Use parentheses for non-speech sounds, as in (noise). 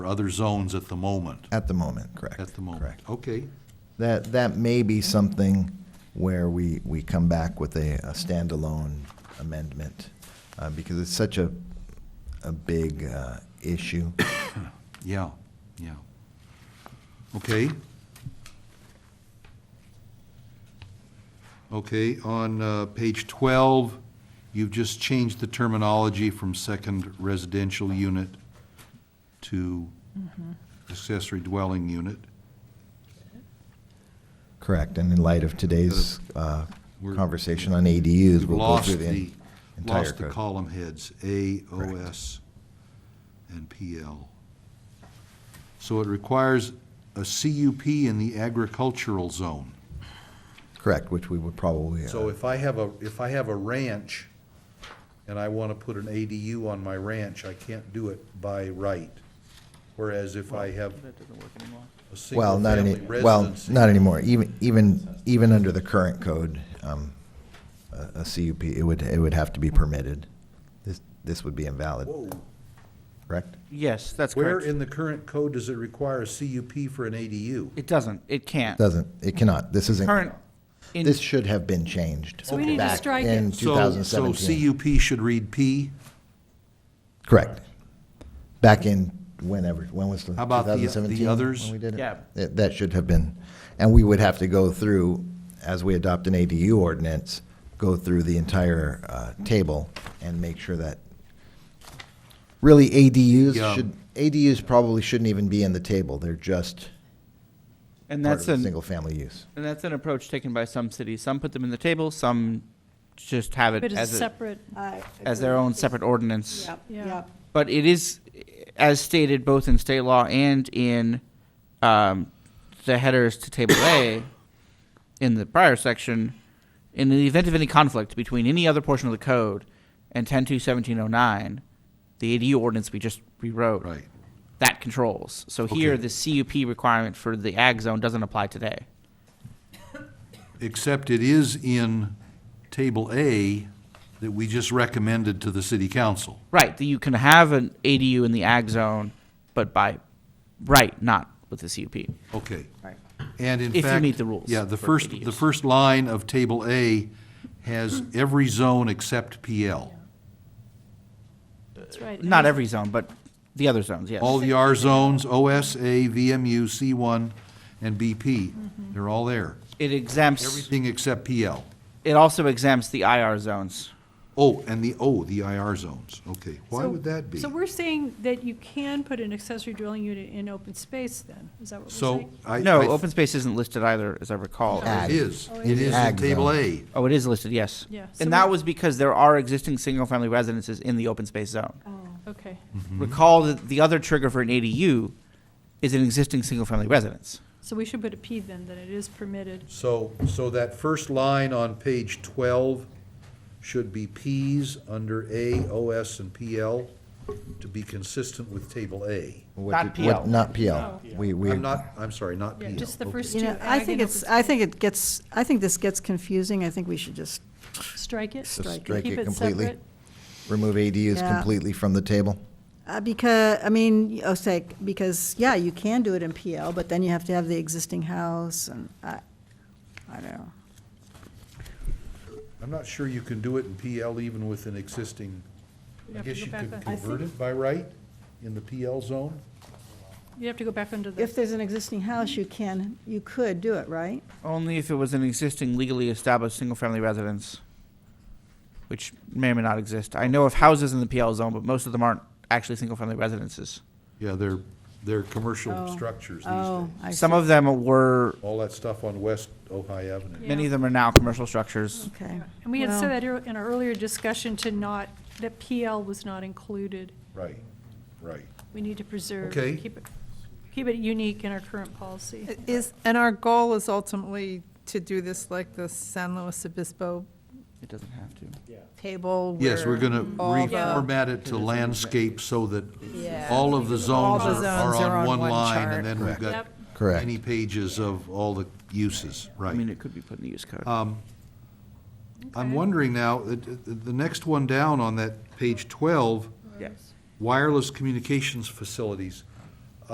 for other zones at the moment, At the moment, correct. at the moment. Correct. Okay, That, that may be something where we, we come back with a, a standalone amendment, uh, because it's such a, a big, uh, issue. yeah, yeah. Okay. Okay, on uh, page 12, you've just changed the terminology from second residential unit to accessory dwelling unit. Correct, and in light of today's, uh, We're- conversation on ADUs, You've we'll go lost through the the, entire lost the code. column heads, A, O, S, and P, L. So it requires a CUP in the agricultural zone. Correct, which we would probably, So uh, if I have a, if I have a ranch and I want to put an ADU on my ranch, I can't do it by right. Whereas if I have That doesn't work anymore. a well, not any, single-family well, residence, not anymore, even, even, even under the current code, um, a, a CUP, it would, it would have to be permitted. This, this would be invalid, whoa. correct? Yes, that's Where correct. in the current code does it require a CUP for an ADU? It doesn't, it can't. Doesn't, it cannot, this isn't, Current, in- this should have been changed. So we need to back strike In it. So- 2017. So CUP should read P? Correct. Back in whenever, when was the? How about the- the 2017 others? When we did it? Yeah. That, that should have been, and we would have to go through, as we adopt an ADU ordinance, go through the entire, uh, table and make sure that, really Yeah. ADUs should, ADUs probably shouldn't even be in the table. They're just and part of that's the an, single family use. and that's an approach taken by some cities. Some put them in the table, some just have it But it's as, a- separate, I as their own separate ordinance. Yep, Yeah. yep. But it is, as stated both in state law and in um, the headers to Table A (coughs) in the prior section, in the event of any conflict between any other portion of the code and 10.2.1709, the ADU ordinance we just rewrote. Right. That controls. So here, Okay. the CUP requirement for the ag zone doesn't apply today. Except it is in Table A that we just recommended to the city council. Right, that you can have an ADU in the ag zone, but by right, not with the CUP. Okay. And in fact. If you meet the rules Yeah, the for first, the ADUs. first line of Table A has every zone except PL. that's right. Not every zone, but the other zones, yes. All the R zones, OSA, VMU, C1, and BP, Mm-hmm. they're all there. It exempts, Everything except PL. it also exempts the IR zones. Oh, and the, oh, the IR zones, okay. Why So- would that be? So we're saying that you can put an accessory dwelling unit in open space then? Is that what we're So saying? I. No, I- open space isn't listed either, as I recall. Ag. It is, Oh, it it is is. in Ag Table zone. A. Oh, it is listed, yes. Yeah, so And that we- was because there are existing single-family residences in the open space zone. Oh. Okay, Recall that the other trigger for an ADU is an existing single-family residence. so we should put a P then, that it is permitted. So, so that first line on page twelve should be Ps under A, OS, and PL to be consistent with table A. What Not did- what- PL. Not PL. We, we. I'm not, I'm sorry, not Yeah, PL. just the Okay. first You two. know, I ag think and it's, open I space. think it gets, I think this gets confusing. I think we should just, Strike it? So strike it Keep completely. separate? Remove ADUs Yeah. completely from the table? uh, because, I mean, oh, say, because, yeah, you can do it in PL, but then you have to have the existing house and I, I don't know. I'm not sure you can do it in PL even with an existing, You'd I have to guess go you back could on- I convert it by right in the PL zone? You'd have to go back under If the, there's an existing house, you can, you could do it, right? Only if it was an existing legally established single-family residence, which may or may not exist. I know of houses in the PL zone, but most of them aren't actually single-family residences. Yeah, they're, they're commercial Oh. structures these Oh, days. I see. Some of them were, All that stuff on West Ojai Avenue. many Yeah. of them are now commercial structures. Okay. and we had Well- said that ear- in our earlier discussion to not, that PL was not included. Right, right. We need to preserve, Okay. keep it, keep it unique in our current policy. Is, and our goal is ultimately to do this like the San Luis Obispo It doesn't have to. table. Yes, we're where gonna all the- reformat it to landscape so that Yeah. all of the All zones the are- are zones are on on one one line, chart. and then we've got Yep. Correct. many pages of all the uses, I mean, right. it could be put in the use code. I'm wondering now, the, the the next one down on that page twelve, Yes. wireless communications facilities.